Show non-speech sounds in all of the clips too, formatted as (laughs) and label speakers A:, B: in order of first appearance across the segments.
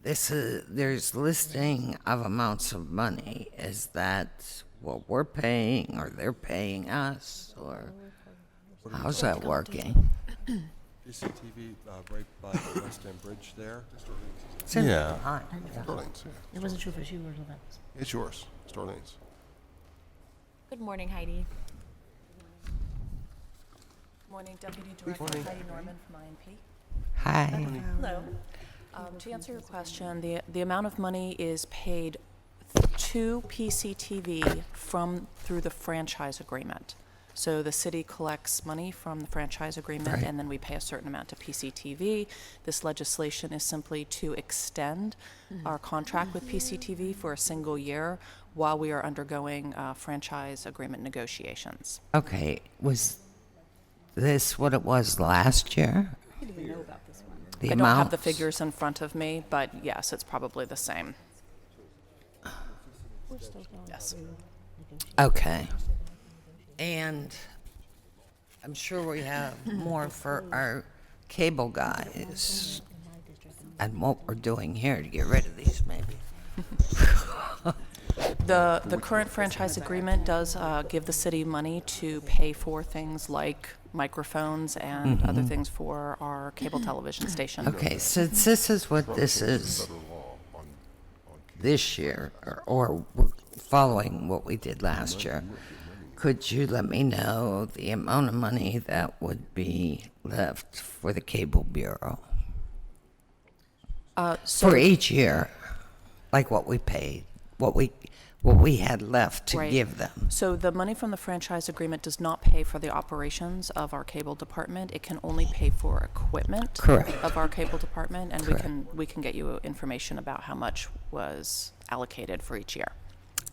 A: This is, there's listing of amounts of money. Is that what we're paying or they're paying us or how's that working?
B: CCTV uh, right
C: (laughs)
B: by the West End Bridge there.
A: It's in
C: Yeah.
A: line,
C: Starlings, yeah.
D: It wasn't sure if it was you or not.
C: It's yours, Starlings.
E: Good morning, Heidi. Morning, Deputy Director Heidi Norman from INP.
A: Hi.
E: Hello. Um, To answer your question, the, the amount of money is paid to PCTV from, through the franchise agreement. So the city collects money from the franchise agreement, and then we pay a certain amount to PCTV. This legislation is simply to extend our contract with PCTV for a single year while we are undergoing uh, franchise agreement negotiations.
A: Okay, was this what it was last year?
E: I
A: The
E: don't have the
A: amounts?
E: figures in front of me, but yes, it's probably the same. Yes.
A: Okay. And I'm sure we have more for our cable guys and what we're doing here to get rid of these maybe.
E: The, the current franchise agreement does uh, give the city money to pay for things like microphones and other things for our cable television station.
A: Mm-hmm. Okay, since this is what this is this year, or, or we're following what we did last year, could you let me know the amount of money that would be left for the Cable Bureau?
E: Uh, so-
A: For each year, like what we paid, what we, what we had left to
E: Right.
A: give them?
E: So the money from the franchise agreement does not pay for the operations of our cable department. It can only pay for equipment
A: Correct.
E: of our cable department, and
A: Correct.
E: we can we can get you information about how much was allocated for each year.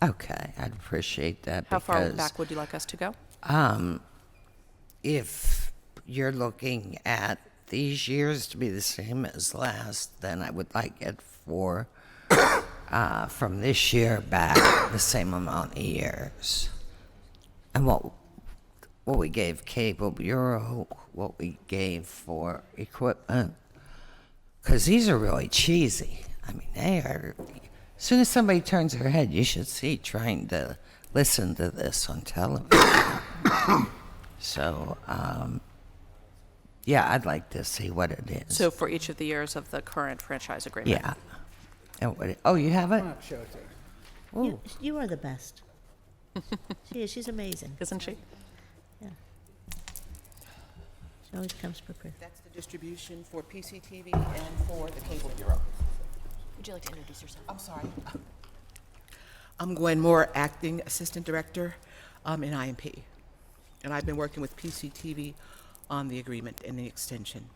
A: Okay, I'd appreciate that
E: How far
A: because
E: back would you like us to go?
A: if you're looking at these years to be the same as last, then I would like it for uh, from this year back the same amount of years. And what what we gave Cable Bureau, what we gave for equipment, because these are really cheesy. I mean, they are. As soon as somebody turns their head, you should see trying to listen to this on television. (coughs) So, um, yeah, I'd like to see what it is.
E: So for each of the years of the current franchise agreement.
A: yeah. And what it- oh, you have it?
D: You, you are the best. she is, she's amazing.
E: Isn't she?
D: She always comes prepared.
F: That's the distribution for PCTV and for the Cable Bureau.
G: Would you like to introduce yourself?
F: I'm sorry. I'm Gwen Moore, Acting Assistant Director um, in IMP. And I've been working with PCTV on the agreement and the extension.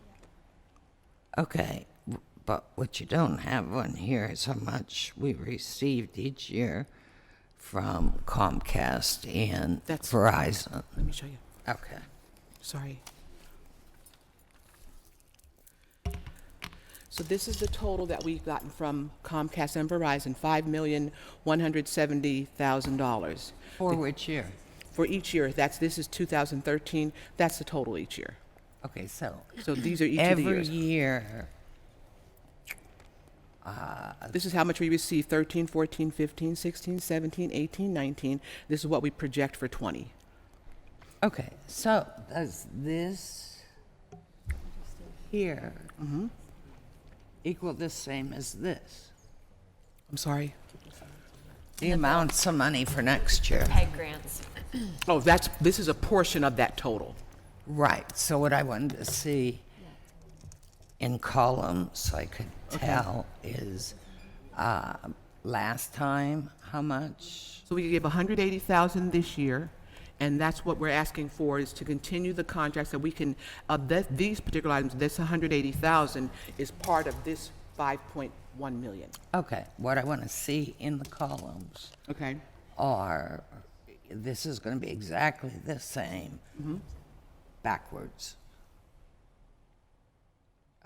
A: Okay. w- But what you don't have on here is how much we received each year from Comcast and
F: That's-
A: Verizon.
F: Let me show you.
A: Okay.
F: Sorry. So this is the total that we've gotten from Comcast and Verizon, $5,170,000.
A: For which year?
F: For each year, that's, this is 2013, that's the total each year.
A: Okay, so
F: So these are each of the
A: every
F: years.
A: year.
F: This is how much we received 13, 14, 15, 16, 17, 18, 19. This is what we project for 20.
A: Okay, so does this here
F: Mm-hmm.
A: equal the same as this?
F: I'm sorry.
A: The amounts of money for next year.
G: Peg grants.
F: Oh, that's this is a portion of that total.
A: Right, so what I wanted to see in columns, so I could tell, is uh, last time, how much?
F: So we give 180,000 this year, and that's what we're asking for is to continue the contracts that we can of th- these particular items. This 180,000 is part of this 5.1 million.
A: Okay, what I want to see in the columns
F: Okay.
A: are, this is going to be exactly the same backwards.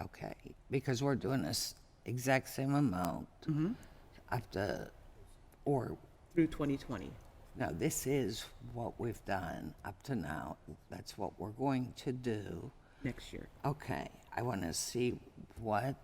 A: Okay, because we're doing this exact same amount up to, or
F: Through 2020.
A: No, this is what we've done up to now. That's what we're going to do.
F: Next year.
A: Okay, I want to see what